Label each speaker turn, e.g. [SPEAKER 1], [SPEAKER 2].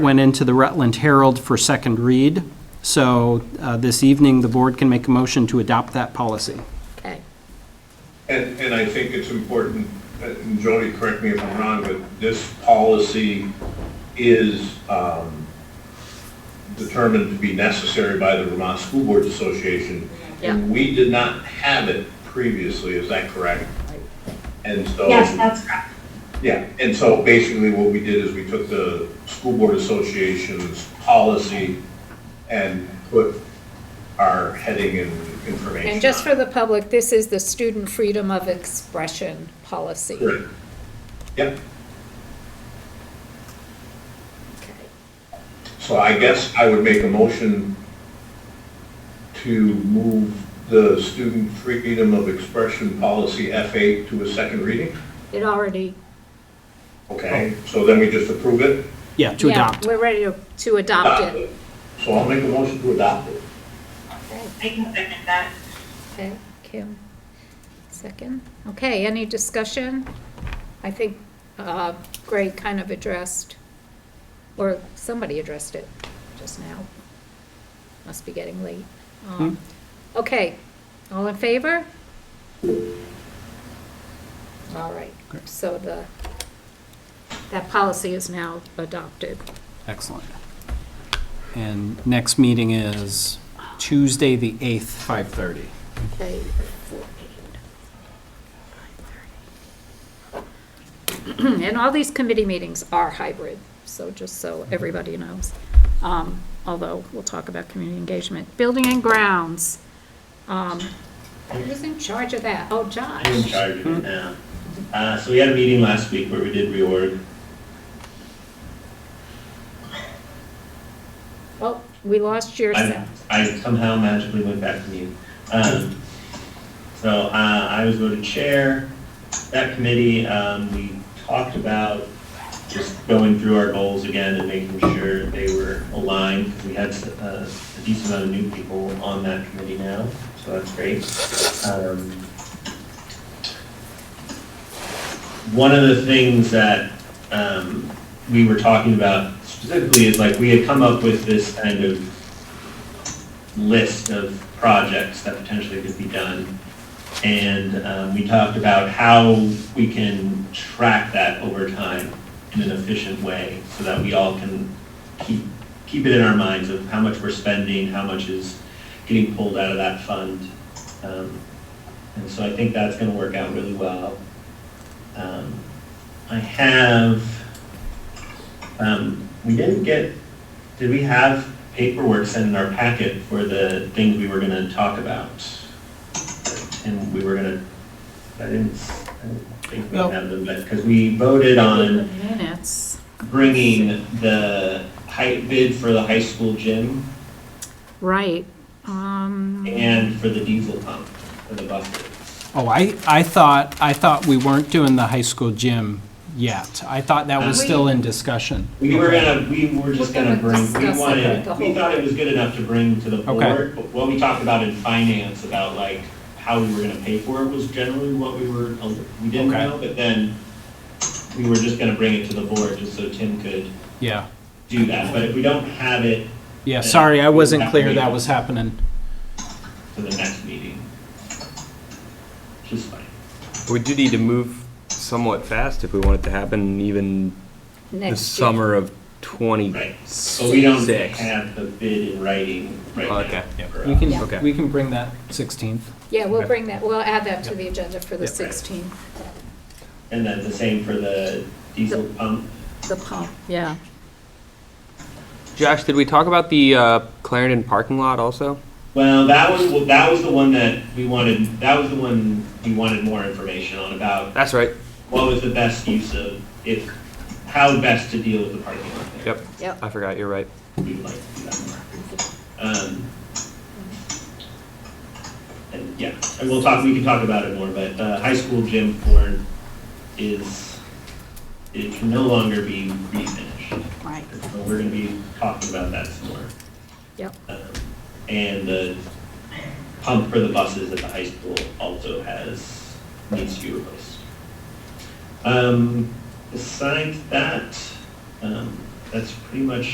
[SPEAKER 1] went into the Rutland Herald for second read. So uh, this evening, the board can make a motion to adopt that policy.
[SPEAKER 2] Okay.
[SPEAKER 3] And, and I think it's important, uh, and Jody, correct me if I'm wrong, but this policy is um, determined to be necessary by the Vermont School Boards Association.
[SPEAKER 2] Yeah.
[SPEAKER 3] And we did not have it previously, is that correct? And so.
[SPEAKER 4] Yes, that's correct.
[SPEAKER 3] Yeah, and so basically what we did is we took the School Board Association's policy and put our heading and information
[SPEAKER 5] And just
[SPEAKER 3] on
[SPEAKER 5] for the public, this is the student freedom of expression policy.
[SPEAKER 3] it. Correct. Yep. So I guess I would make a motion to move the Student Freedom of Expression Policy F8 to a second reading.
[SPEAKER 5] It already.
[SPEAKER 3] Okay, so then we just approve it?
[SPEAKER 1] Yeah, to
[SPEAKER 5] yeah,
[SPEAKER 1] adopt.
[SPEAKER 5] We're ready to, to adopt it.
[SPEAKER 3] So I'll make a motion to adopt it.
[SPEAKER 5] Okay,
[SPEAKER 4] I can second that.
[SPEAKER 5] Okay, Kim, second. Okay, any discussion? I think uh, Greg kind of addressed, or somebody addressed it just now. Must be getting late. Um, Okay, all in favor? All right, so the, that policy is now adopted.
[SPEAKER 1] Excellent. And next meeting is Tuesday, the 8th, 5:30.
[SPEAKER 5] Okay, And all these committee meetings are hybrid, so just so everybody knows. Um, Although, we'll talk about community engagement. Building and grounds. um, Who's in charge of that? Oh,
[SPEAKER 6] I'm in
[SPEAKER 5] Josh.
[SPEAKER 6] charge of it now. Uh, so we had a meeting last week where we did reorg.
[SPEAKER 5] Oh, we lost your
[SPEAKER 6] I,
[SPEAKER 5] sound.
[SPEAKER 6] I somehow magically went back to mute. Um, so, uh, I was voted chair. That committee, um, we talked about just going through our goals again and making sure they were aligned. We had uh, a decent amount of new people on that committee now, so that's great. Um, one of the things that um, we were talking about specifically is like we had come up with this kind of list of projects that potentially could be done. And um, we talked about how we can track that over time in an efficient way so that we all can keep, keep it in our minds of how much we're spending, how much is getting pulled out of that fund. Um, And so I think that's going to work out really well. Um, I have, um, we didn't get, did we have paperwork sent in our packet for the things we were gonna talk about? And we were gonna, I didn't, s- I didn't think we
[SPEAKER 1] No.
[SPEAKER 6] had them, but, because we voted on
[SPEAKER 5] Minutes.
[SPEAKER 6] bringing the high, bid for the high school gym
[SPEAKER 5] Right. Um,
[SPEAKER 6] and for the diesel pump for the buses.
[SPEAKER 1] Oh, I, I thought, I thought we weren't doing the high school gym yet. I thought that was still in discussion.
[SPEAKER 6] We were gonna, we were
[SPEAKER 5] We're
[SPEAKER 6] just gonna
[SPEAKER 5] gonna
[SPEAKER 6] bring,
[SPEAKER 5] discuss
[SPEAKER 6] we
[SPEAKER 5] it with
[SPEAKER 6] wanted,
[SPEAKER 5] the
[SPEAKER 6] we
[SPEAKER 5] whole-
[SPEAKER 6] thought it was good enough to bring to the
[SPEAKER 1] Okay.
[SPEAKER 6] board. but What we talked about in finance, about like how we were gonna pay for it was generally what we were, uh, we didn't
[SPEAKER 1] Okay.
[SPEAKER 6] know, but then we were just gonna bring it to the board just so Tim could
[SPEAKER 1] Yeah,
[SPEAKER 6] do that. But if we don't have it
[SPEAKER 1] yeah, sorry, I wasn't clear that was happening.
[SPEAKER 6] for the next meeting, which is fine.
[SPEAKER 7] We do need to move somewhat fast if we want it to happen even the
[SPEAKER 5] next year.
[SPEAKER 7] summer of
[SPEAKER 6] Right.
[SPEAKER 7] twenty-six.
[SPEAKER 6] But we don't have the bid in writing right now.
[SPEAKER 7] Okay.
[SPEAKER 6] for
[SPEAKER 1] We
[SPEAKER 6] us.
[SPEAKER 7] Okay.
[SPEAKER 1] can, we can bring that 16th.
[SPEAKER 5] Yeah, we'll bring that, we'll add that to the agenda for the
[SPEAKER 7] Yep.
[SPEAKER 5] 16th,
[SPEAKER 6] And then the same for the diesel pump.
[SPEAKER 5] the pump, yeah.
[SPEAKER 7] Josh, did we talk about the uh, Clarendon parking lot also?
[SPEAKER 6] Well, that was, well, that was the one that we wanted, that was the one we wanted more information on about
[SPEAKER 7] That's right.
[SPEAKER 6] what was the best use of, if, how best to deal with the parking lot there.
[SPEAKER 7] Yep.
[SPEAKER 5] Yep.
[SPEAKER 7] I forgot, you're right.
[SPEAKER 6] We'd like to do that more. Um, And, yeah, and we'll talk, we can talk about it more, but, uh, high school gym floor is, it can no longer be refinished.
[SPEAKER 5] Right.
[SPEAKER 6] So we're gonna be talking about that some more.
[SPEAKER 5] Yep.
[SPEAKER 6] Um, And the pump for the buses at the high school also has, needs to be replaced. Um, besides that, um, that's pretty much